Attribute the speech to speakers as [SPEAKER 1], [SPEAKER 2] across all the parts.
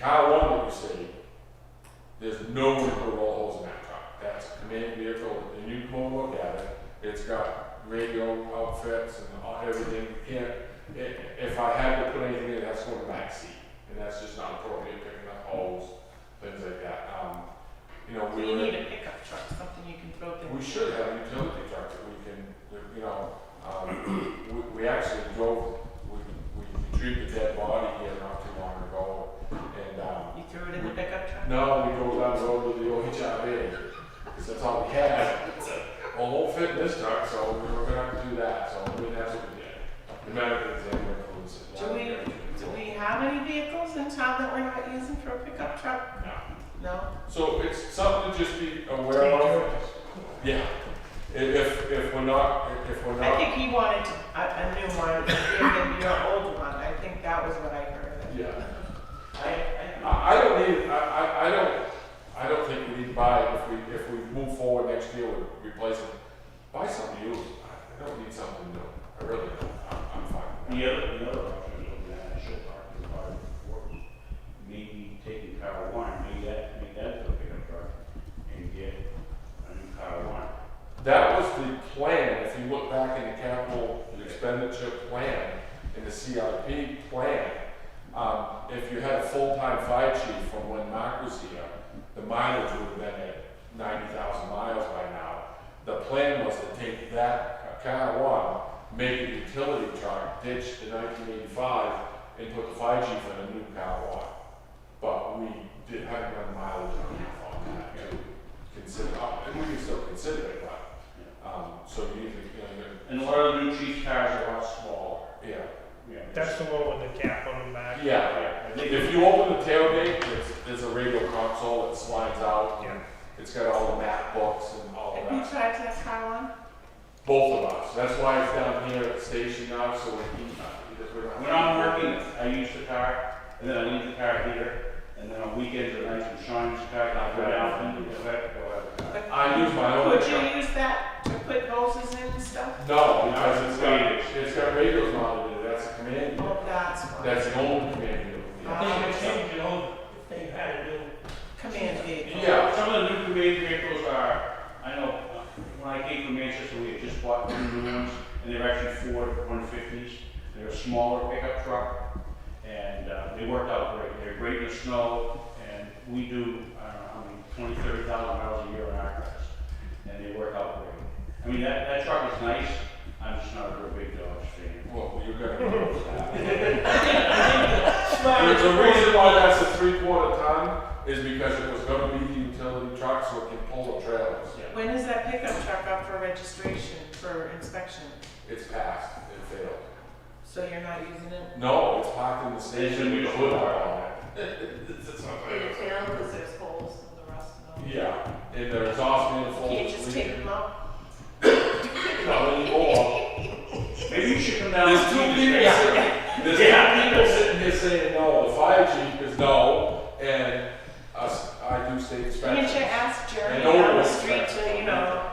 [SPEAKER 1] car one that you see, there's no way to put roll holes in that car. That's a command vehicle, and you can go look at it, it's got radio outfits and all- everything, you can't, i- if I had to put anything in, that's going to back seat, and that's just not appropriate, picking up holes, things like that, um, you know,
[SPEAKER 2] So
[SPEAKER 1] we.
[SPEAKER 2] you need a pickup truck, something you can throw
[SPEAKER 1] We
[SPEAKER 2] things.
[SPEAKER 1] should have a utility truck that we can, that, you know, um, we, we actually drove, we, we retrieved a dead body here not too long ago. And, um,
[SPEAKER 2] You threw it in the pickup truck?
[SPEAKER 1] no, we drove down the road to the OHIV, because that's all we had. Well, it won't fit in this truck, so we were gonna have to do that, so we didn't have to do that. The medical examiner includes it.
[SPEAKER 2] Do we, do we have any vehicles in town that we're not using for a pickup truck?
[SPEAKER 1] No.
[SPEAKER 2] No?
[SPEAKER 1] So it's something to just be aware of. Yeah. If, if, if we're not, if we're
[SPEAKER 2] I
[SPEAKER 1] not,
[SPEAKER 2] think he wanted to- a, a new one, and your old one, I think that was what I heard.
[SPEAKER 1] yeah.
[SPEAKER 2] I, I,
[SPEAKER 1] I I don't need, I, I, I don't, I don't think we need to buy it if we, if we move forward next year with replacing. Buy something used, I I don't need something new, I really don't, I'm, I'm fine with
[SPEAKER 3] The other, the other option is that show park is part of the work. Maybe taking car one, maybe that, make that the pickup truck and get a new car one.
[SPEAKER 1] that. That was the plan, if you look back in the capital expenditure plan, in the CIP plan, um, if you had a full-time fire chief from when Mark was here, the mileage would have been at ninety thousand miles by now. The plan was to take that car one, make it utility truck, ditch the nineteen eighty-five, and put the fire chief in a new car one. But we did have a mileage on that, on that to consider, uh, and we can still consider it, but, um, so you need to,
[SPEAKER 3] And
[SPEAKER 1] you know,
[SPEAKER 3] a lot of new chief cars are a lot smaller.
[SPEAKER 1] you're- yeah.
[SPEAKER 3] Yeah.
[SPEAKER 4] That's the one with the cap on the back.
[SPEAKER 1] Yeah, yeah. if you open the tailgate, there's, there's a radio console that slides out.
[SPEAKER 4] Yeah.
[SPEAKER 1] It's got all the map books and all of
[SPEAKER 2] have you
[SPEAKER 1] that.
[SPEAKER 2] tried to have car one?
[SPEAKER 1] Both of us, that's why it's down here at the station now, so we can, because we're not.
[SPEAKER 3] When I'm working, I use the car, and then I leave the car here, and then on weekends or nights when Sean's car, I go down and go back, go out.
[SPEAKER 2] But
[SPEAKER 1] I use my own.
[SPEAKER 2] Could you use that to put hoses in and stuff?
[SPEAKER 1] No, because it's got, it's got radios mounted, in it. that's a command,
[SPEAKER 2] Well, Oh, that's one,
[SPEAKER 1] that's the only command. unit.
[SPEAKER 2] Ah.
[SPEAKER 5] They could change it over if they had a new,
[SPEAKER 2] command vehicle.
[SPEAKER 1] Yeah.
[SPEAKER 3] Some of the new command vehicles are, I know, uh, when I came from Manchester, we had just bought two new ones, and they're actually Ford one fifties. They're a smaller pickup truck, and, uh, they worked out great. They're great in the snow, and we do, I don't know, how many, twenty, thirty thousand miles a year on our cars. And they work out great. I mean, that, that truck is nice, I'm just not a real big Dodge fan.
[SPEAKER 1] Well, you're gonna. The,
[SPEAKER 2] But
[SPEAKER 1] the reason why that's a three quarter ton is because it was gonna be the utility truck, so it can pull the trailers.
[SPEAKER 3] Yeah.
[SPEAKER 2] when is that pickup truck up for registration, for inspection?
[SPEAKER 1] It's passed, it failed.
[SPEAKER 2] So you're not using it?
[SPEAKER 1] No, it's parked in the
[SPEAKER 3] It's a
[SPEAKER 1] station.
[SPEAKER 3] mutual
[SPEAKER 1] Put it
[SPEAKER 3] park.
[SPEAKER 1] on it. It's not
[SPEAKER 2] They
[SPEAKER 1] like-
[SPEAKER 2] fail because there's holes in the rust and all.
[SPEAKER 1] Yeah, and the exhaust manifold.
[SPEAKER 2] You can't just take them out?
[SPEAKER 1] Not anymore.
[SPEAKER 3] Maybe you should come down.
[SPEAKER 1] There's
[SPEAKER 3] and
[SPEAKER 1] two
[SPEAKER 3] see this
[SPEAKER 1] people
[SPEAKER 3] guy.
[SPEAKER 1] sitting, there's two people sitting here saying no, the fire chief is no, and us, I do state
[SPEAKER 2] Can't you
[SPEAKER 1] inspection.
[SPEAKER 2] ask Jeremy
[SPEAKER 1] I know
[SPEAKER 2] down the
[SPEAKER 1] it.
[SPEAKER 2] street to, you know,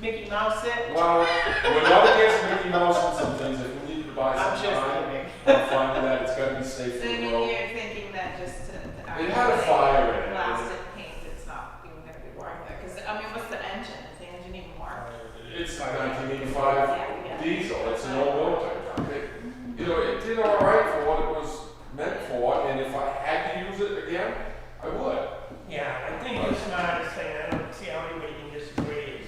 [SPEAKER 2] Mickey Mouse it?
[SPEAKER 1] Well, we're not against Mickey Mouse on some things, if we need to buy
[SPEAKER 2] I'm
[SPEAKER 1] some
[SPEAKER 2] just
[SPEAKER 1] time,
[SPEAKER 2] kidding.
[SPEAKER 1] I'm fine with that, it's gotta be safe
[SPEAKER 6] So
[SPEAKER 1] for
[SPEAKER 6] you
[SPEAKER 1] the
[SPEAKER 6] mean
[SPEAKER 1] road.
[SPEAKER 6] you're thinking that just to.
[SPEAKER 1] It had a fire in it.
[SPEAKER 6] Blasted paint, it's not even gonna be worth it, cause I mean, what's the engine, is the engine even worth?
[SPEAKER 1] It's a nineteen eighty-five
[SPEAKER 6] Yeah, yeah.
[SPEAKER 1] diesel, it's an old military truck. It- You know, it did all right for what it was meant for, and if I had to use it again, I would.
[SPEAKER 5] yeah, I think it's not a thing, I don't see how anybody can disagree.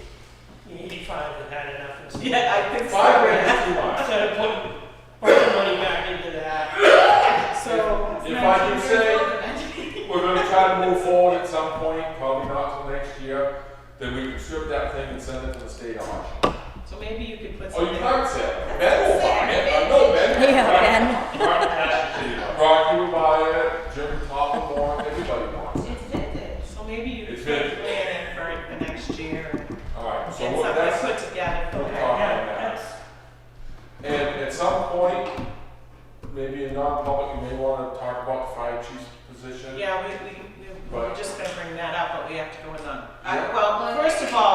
[SPEAKER 5] The eighty-five has had enough. and stuff.
[SPEAKER 2] Yeah, I think
[SPEAKER 1] Five
[SPEAKER 2] so.
[SPEAKER 1] grand is too much.
[SPEAKER 5] Instead of putting, putting money back into that,
[SPEAKER 2] So,
[SPEAKER 1] If I
[SPEAKER 6] It's
[SPEAKER 1] can
[SPEAKER 6] not
[SPEAKER 1] say,
[SPEAKER 6] even an engine.
[SPEAKER 1] we're gonna try to move forward at some point, probably not till next year, then we can strip that thing and send it to the state auction.
[SPEAKER 2] so maybe you could put
[SPEAKER 1] Oh, you
[SPEAKER 2] something.
[SPEAKER 1] can't sell it, Ben will buy it, I know Ben. will buy it.
[SPEAKER 3] Mark Cash is sitting on.
[SPEAKER 1] Rocky will buy it, Jim Topham wants, everybody wants it.
[SPEAKER 6] It's vintage.
[SPEAKER 2] So maybe you could
[SPEAKER 1] It's
[SPEAKER 2] put a
[SPEAKER 1] good.
[SPEAKER 2] plan in for the next year and get
[SPEAKER 1] Alright, so
[SPEAKER 2] something
[SPEAKER 1] what- that's.
[SPEAKER 2] put together for
[SPEAKER 1] we'll
[SPEAKER 2] that.
[SPEAKER 1] talk on
[SPEAKER 5] yeah,
[SPEAKER 1] that.
[SPEAKER 5] that's.
[SPEAKER 1] And at some point, maybe in non-public, you may wanna talk about the fire chief's position.
[SPEAKER 2] Yeah, we, we, we- we're
[SPEAKER 1] Right.
[SPEAKER 2] just gonna bring that up, but we have to go in
[SPEAKER 1] Yeah.
[SPEAKER 2] on, I- well, first of all,